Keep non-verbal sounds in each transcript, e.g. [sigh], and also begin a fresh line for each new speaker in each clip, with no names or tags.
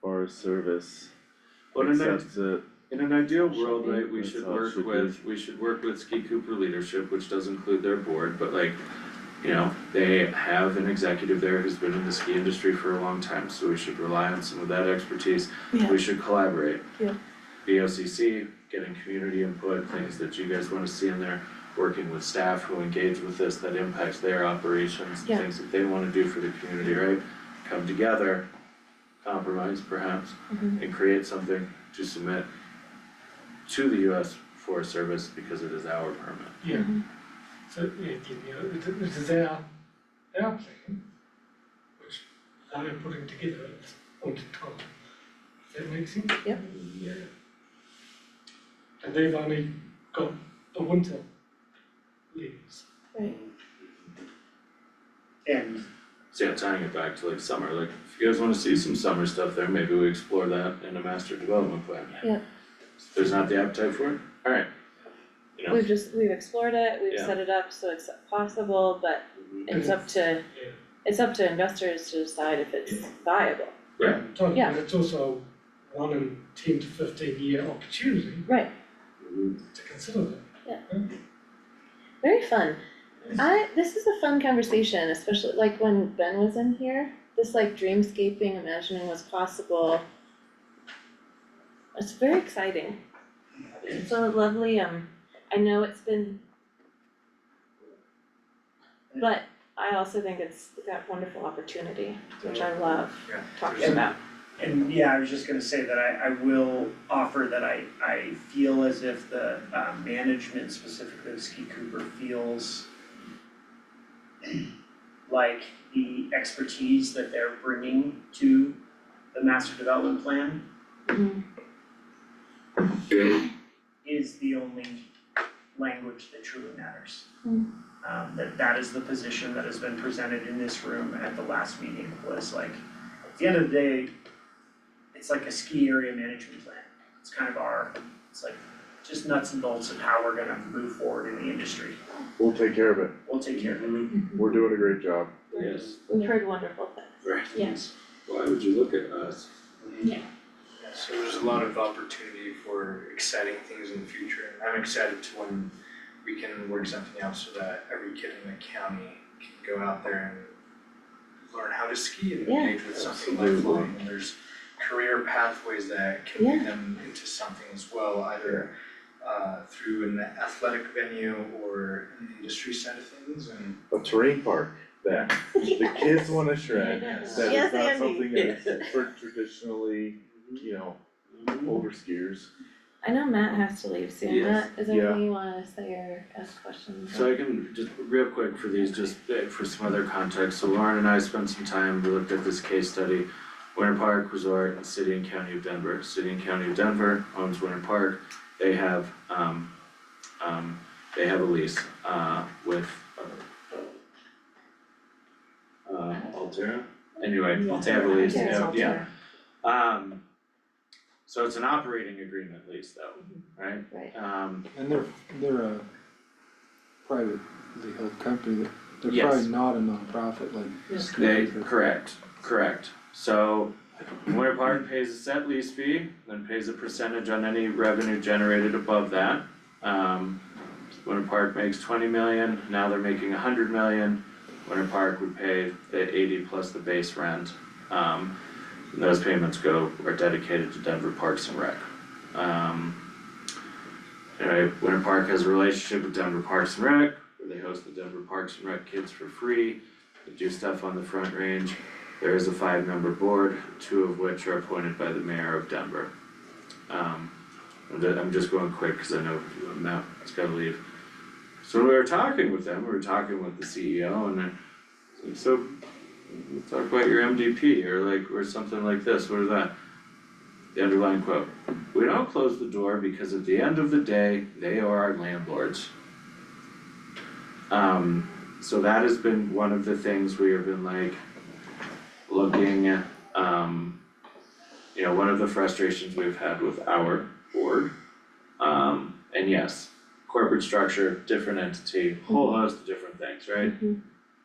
for service.
But in an,
Accept it,
in an ideal world, right, we
That's
should
how it
work
should be.
with, we should work with Ski Cooper leadership, which does include their board, but like, you know, they have an executive there who's been in the ski industry for a long time, so we should rely on some of that expertise.
Yeah,
We should collaborate.
Yeah.
BOCC, getting community input, things that you guys wanna see in there, working with staff who engage with this, that impacts their operations, and
Yeah.
things that they wanna do for the community, right? Come together, compromise perhaps,
Mhm.
and create something to submit to the US Forest Service because it is our permit.
Yeah, so it, you know, it, it is their, their plan, which I'm putting together at this point in time. Does that make sense?
Yep.
Yeah. And they've only got the winter leaves.
right,
And
So yeah, tying it back to like summer, like if you guys wanna see some summer stuff there, maybe we explore that in a master development plan.
Yeah.
If There's not the appetite for it, alright. You know,
we've just, we've explored it, we've
Yeah.
set it up so it's possible, but it's up to,
Yeah.
it's up to investors to decide if it's viable.
Totally,
Yeah.
but it's also a one in ten to fifteen year opportunity
Right,
to consider that.
very fun. I, this is a fun conversation, especially like when Ben was in here, this like dreamscaping, imagining what's possible. It's very exciting. It's a lovely, um, I know it's been. But I also think it's got wonderful opportunity, which I love
Yeah.
talking about.
and yeah, I was just gonna say that I I will offer that I I feel as if the uh management specifically of Ski Cooper feels like the expertise that they're bringing to the master development plan
Mhm.
is the only language that truly matters.
Hmm.
Um, that that is the position that has been presented in this room at the last meeting was like, at the end of the day, it's like a ski area management plan. It's kind of our, it's like just nuts and bolts of how we're gonna move forward in the industry.
we'll take care of it,
We'll take care of it.
we're doing a great job.
yes,
We've heard wonderful things.
right.
Yes.
Why would you look at us?
So there's a lot of opportunity for exciting things in the future, and I'm excited to when we can work something out so that every kid in the county can go out there and learn how to ski and
Yeah.
engage with something
Absolutely.
lifelong, and there's career pathways that can lead them into something as well, either uh through an athletic venue or an industry side of things, and
A terrain park
[laughs]
that the kids wanna shred,
Yes.
that
Yes,
is not
Andy.
something that
[laughs]
is for traditionally, you know, older skiers.
I know Matt has to leave soon,
Yes.
Matt, is there
Yeah.
anything you wanna say or ask questions?
So I can, just real quick for these, just uh, for some other context, so Lauren and I spent some time, we looked at this case study. Winter Park Resort and City and County of Denver, City and County of Denver owns Winter Park, they have, um, um, they have a lease, uh, with, uh, uh, Altera, anyway, they have a lease,
Yeah, it's
yeah,
all
yeah.
there.
Um, so it's an operating agreement lease though, right?
Right.
Um,
And they're, they're a privately held company, they're
Yes.
probably not a nonprofit like. Scoop
They,
or-
correct, correct. So Winter Park pays a set lease fee, then pays a percentage on any revenue generated above that. Um, Winter Park makes twenty million, now they're making a hundred million. Winter Park would pay the eighty plus the base rent. Um, and those payments go, are dedicated to Denver Parks and Rec. Um, anyway, Winter Park has a relationship with Denver Parks and Rec, where they host the Denver Parks and Rec kids for free. They do stuff on the front range. There is a five-member board, two of which are appointed by the mayor of Denver. Um, I'm ju- I'm just going quick because I know Matt's gotta leave. So we were talking with them, we were talking with the CEO and then, it's like, so talk about your MDP or like, or something like this, what is that? The underlying quote, we don't close the door because at the end of the day, they are our landlords. Um, so that has been one of the things we have been like looking, um, you know, one of the frustrations we've had with our board. Um, and yes, corporate structure, different entity, whole host of different things, right?
Mhm.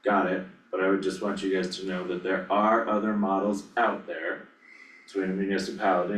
Got it, but I would just want you guys to know that there are other models out there between a municipality